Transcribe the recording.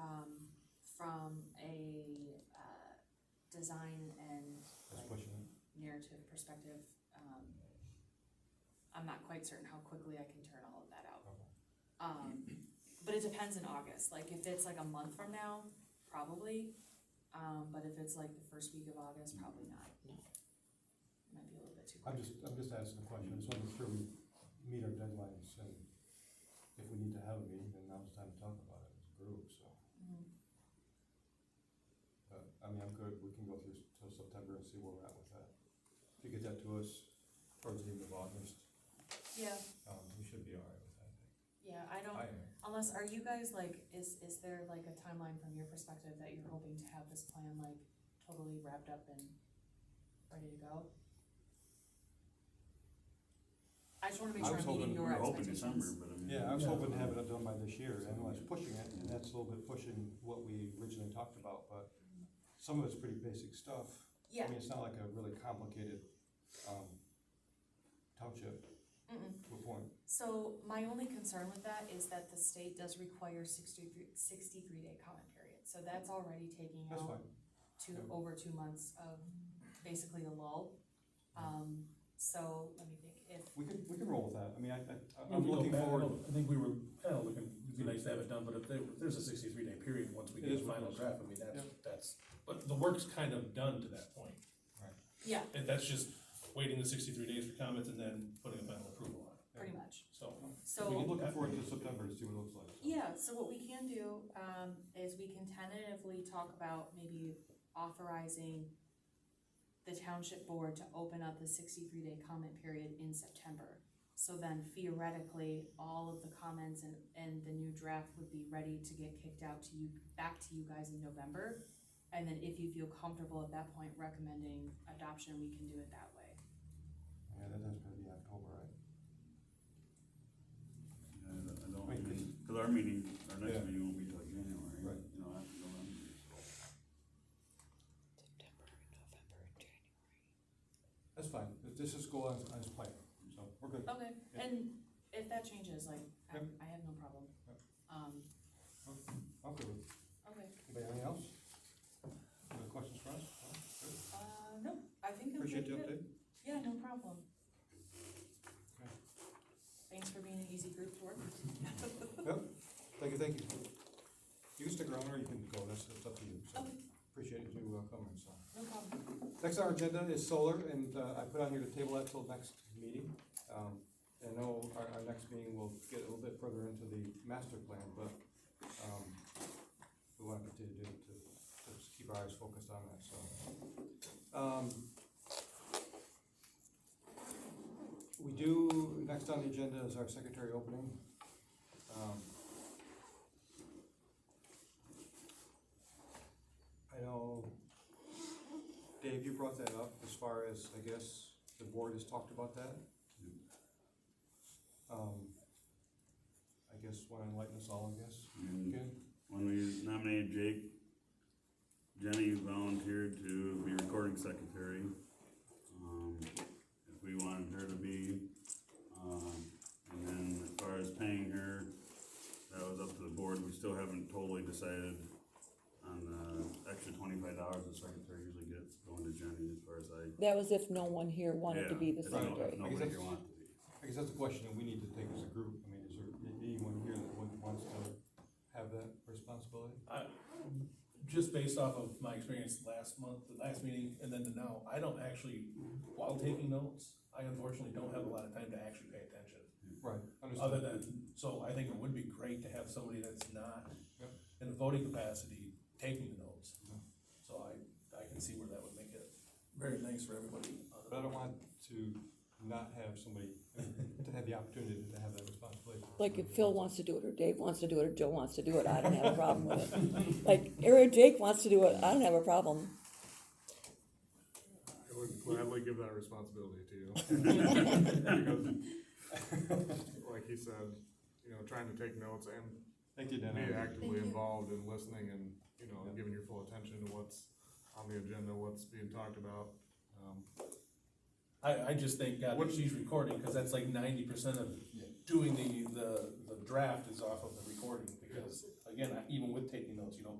um, from a, uh, design and Let's like push it. narrative perspective, um, I'm not quite certain how quickly I can turn all of that out. Okay. Um, but it depends in August, like if it's like a month from now, probably, um, but if it's like the first week of August, probably not. No. Might be a little bit too I'm quick. just, I'm just asking the question, so I'm sure we meet our deadlines, and if we need to have a meeting, then now's the time to talk about it as a group, so. Mhm. But, I mean, I'm good, we can go through s- till September and see where we're at with that. If you get that to us towards the end of August, Yeah, um, we should be all right with that, I think. yeah, I don't, I am. Unless, are you guys like, is, is there like a timeline from your perspective that you're hoping to have this plan like totally wrapped up and ready to go? I just wanna make I sure was I'm meeting hoping- your We're hoping expectations. December, but I mean. Yeah, I was hoping to have it done by this year, and I was pushing it, and that's a little bit pushing what we originally talked about, but some of it's pretty basic stuff. Yeah, I mean, it's not like a really complicated, um, township mm-mm. to a point. So my only concern with that is that the state does require 63 63 day comment period. So that's already taking That's out fine. two, Yeah. over two months of basically a lull. Um, so let me think, if We can, we can roll with that. I mean, I, I, Well, I'm we go looking back- I forward. don't- I think we were kind of looking, it'd be nice to have it done, but if there, if there's a sixty-three day period, once we It get is the what it final is. draft, I mean, that's, Yeah. that's, but the work's kind of done to that point. Right. Yeah. And that's just waiting the sixty-three days for comments and then putting a final approval on it, pretty much, so. so. We're looking forward to September to see what it looks like. so. Yeah, so what we can do, um, is we can tentatively talk about maybe authorizing the township board to open up the sixty-three day comment period in September. So then theoretically, all of the comments and, and the new draft would be ready to get kicked out to you, back to you guys in November. And then if you feel comfortable at that point recommending adoption, we can do it that way. Yeah, that has to be October, right? Yeah, I don't- I don't, Right, 'cause- because our meeting, our Yeah. next meeting won't be till January, Right. you know, after November, so. September, November, and January. That's fine. Th- This is going as, as planned, so we're good. Okay, Yeah. and if that changes, like, I, Yep. I have no problem. Yep. Um, I'm good. with okay. it. Anybody have anything else? Any questions for us? No? Good. Uh, no, I think I'm Appreciate pretty the good. update. Yeah, no problem. Okay. Thanks for being an easy group to work with. Thank you, thank you. You can stick around or you can go. That's, that's up to you. So appreciate you uh, coming, so. No problem. Next on our agenda is solar, and uh, I put on here to table that till next meeting. Um, I know our, our next meeting will get a little bit further into the master plan, but, um, we want to continue to, to, to just keep our eyes focused on that, so. Um, We do, next on the agenda is our secretary opening. Um, I know Dave, you brought that up as far as, I guess, the board has talked about that. Um, I guess want to enlighten us all, I guess. And Okay, when we nominated Jake, Jenny volunteered to be recording secretary. Um, if we wanted her to be, um, and then as far as paying her, that was up to the board, we still haven't totally decided on the extra twenty-five dollars the secretary usually gets going to Jenny as far as I. That was if no one here wanted to be the Yeah, I don't know if secretary. Nobody here wanted to be. I guess that's a question that we need to take as a group. I mean, is there a- anyone here that would- wants to have that responsibility? I, just based off of my experience last month, the last meeting, and then to now, I don't actually, while taking notes, I unfortunately don't have a lot of time to actually pay attention. Right, other understood. than, so I think it would be great to have somebody that's not Yep. in a voting capacity taking the notes. So I, I can see where that would make it very nice for everybody. But I don't want to not have somebody, to have the opportunity to have that responsibility. Like if Phil wants to do it, or Dave wants to do it, or Joe wants to do it, I don't have a problem with it. Like, or Jake wants to do it, I don't have a problem. I would gladly give that responsibility to you. Because, Like he said, you know, trying to take notes and Thank you, be Dana. actively you. involved in listening and, you know, Yeah. giving your full attention to what's on the agenda, what's being talked about. Um, I, I just thank God that she's recording, because that's like ninety percent of doing the, the, the draft is off of the recording, because again, I- even with taking notes, you don't